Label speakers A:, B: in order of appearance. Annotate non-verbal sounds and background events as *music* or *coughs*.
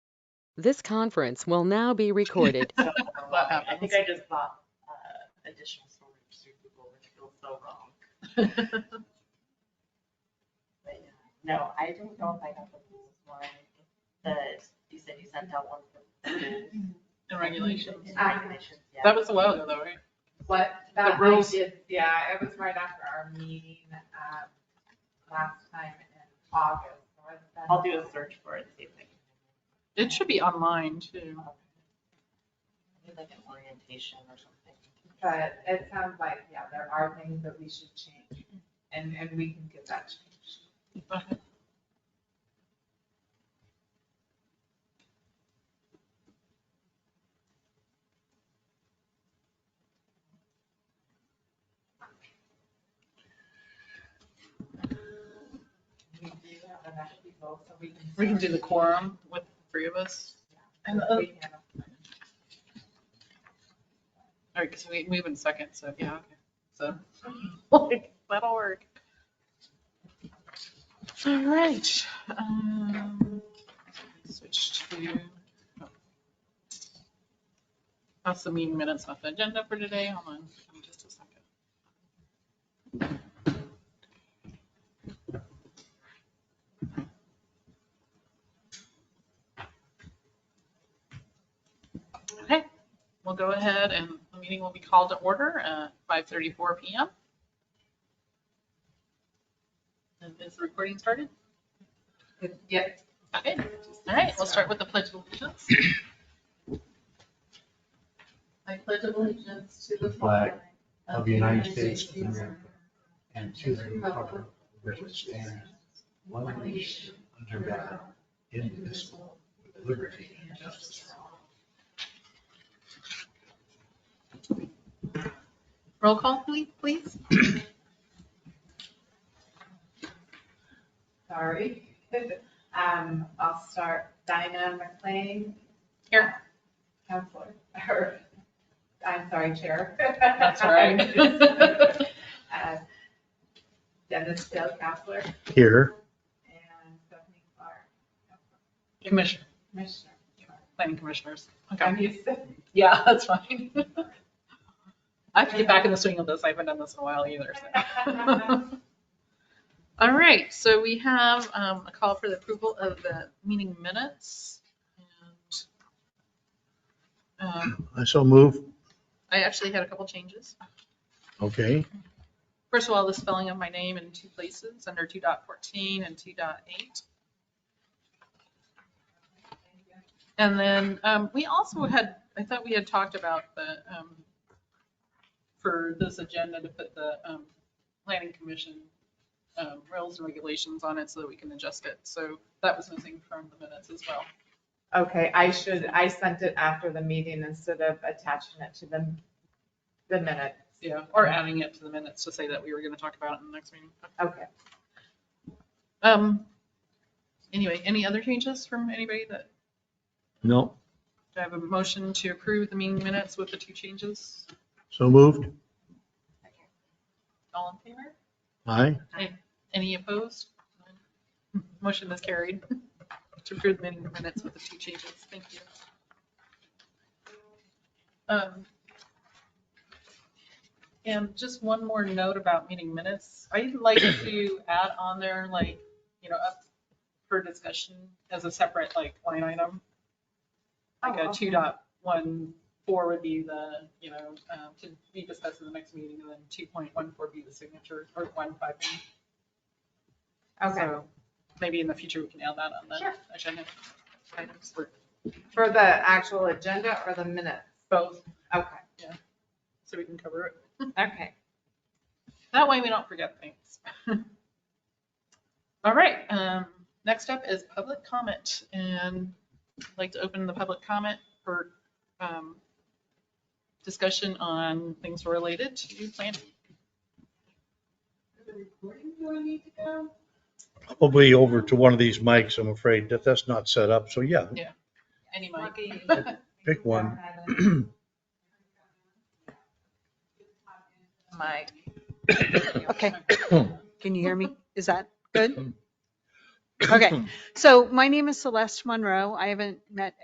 A: This conference will now be
B: *laughs*
A: recorded.
C: So, but I think I just bought uh, additional storage through Google, which feels so wrong. But yeah, No, I don't know if I got the rules one, the, you said you sent out one for the
B: The regulations.
C: *laughs* regulations, yeah.
B: That was a while ago though, right?
D: What,
B: The
D: that I
B: rules.
D: did, yeah, it was right after our meeting, um, last time in August. so it's been-
C: I'll do a search for it, see if I can.
B: It should be online too.
C: Maybe like an orientation or something.
D: But it sounds like, yeah, there are things that we should change, and, and we can get that changed.
B: But
D: We do have enough people, so we can.
B: We can do the quorum with the three of us. And, uh, all
D: We can.
B: right, because we move in second, so yeah, okay. So, like, that'll work. All right. um, Switch to. oh. That's the meeting minutes off the agenda for today. Hold on, give me just a second. Okay, we'll go ahead and the meeting will be called to order at 5:34 PM. And Is the recording started?
D: Yeah,
B: Okay, all right, we'll start with the pledge of allegiance.
D: I pledge allegiance to the
E: flag of the United States of America and to the republic for which it stands one nation under God, indivisible, with liberty and justice for all.
B: Roll call, please, please.
D: Sorry. *laughs* Um, I'll start Dinah McLean.
B: Here.
D: Counselor, *laughs* or, I'm sorry, Chair.
B: That's all right.
D: *laughs* Uh, Dennis Dale, Counselor,
E: Here.
D: and Stephanie Clark, Counselor.
B: *laughs* Commissioner,
D: Commissioner.
B: planning commissioners. Okay,
D: I'm used to, *laughs*
B: yeah, *laughs* that's fine. I have to get back in the swing of this. I haven't done this in a while either, so. *laughs* All right, so we have um, a call for the approval of the meeting minutes. and um,
F: I so move,
B: I actually had a couple changes.
F: okay,
B: First of all, the spelling of my name in two places, under 2.14 and 2.8. And then um, we also had, I thought we had talked about the, um, for this agenda to put the um, planning commission um, rules and regulations on it so that we can adjust it. So that was missing from the minutes as well.
D: okay, I should, I sent it after the meeting instead of attaching it to the, the minutes.
B: Yeah. Or adding it to the minutes to say that we were going to talk about it in the next meeting.
D: Okay,
B: Um. Anyway, any other changes from anybody that
F: no,
B: Do I have a motion to approve the meeting minutes with the two changes?
F: so moved,
B: All in favor?
F: aye,
B: Any opposed? Motion is carried to approve the meeting minutes with the two changes. Thank you. Um, And just one more note about meeting minutes. I'd like to add on there, like, you know, up for discussion as a separate, like, line item. Like
D: Oh,
B: a
D: okay.
B: two dot one four would be the, you know, um, to be discussed in the next meeting, and then two point one four be the signature, or one five.
D: okay.
B: So Maybe in the future, we can add that on
D: Sure.
B: the agenda. items for
D: For the actual agenda or the minutes?
B: Both,
D: Okay,
B: so we can cover it.
D: okay.
B: That way we don't forget things. *laughs* All right, um, next up is public comment and I'd like to open the public comment for, um, discussion on things related to planning.
F: probably over to one of these mics, I'm afraid, that that's not set up, so yeah,
B: Any
D: *laughs*
B: mic.
D: *coughs*
F: pick one.
C: Mike.
G: Okay. Can you hear me? Is that good? Okay. So my name is Celeste Monroe. I haven't met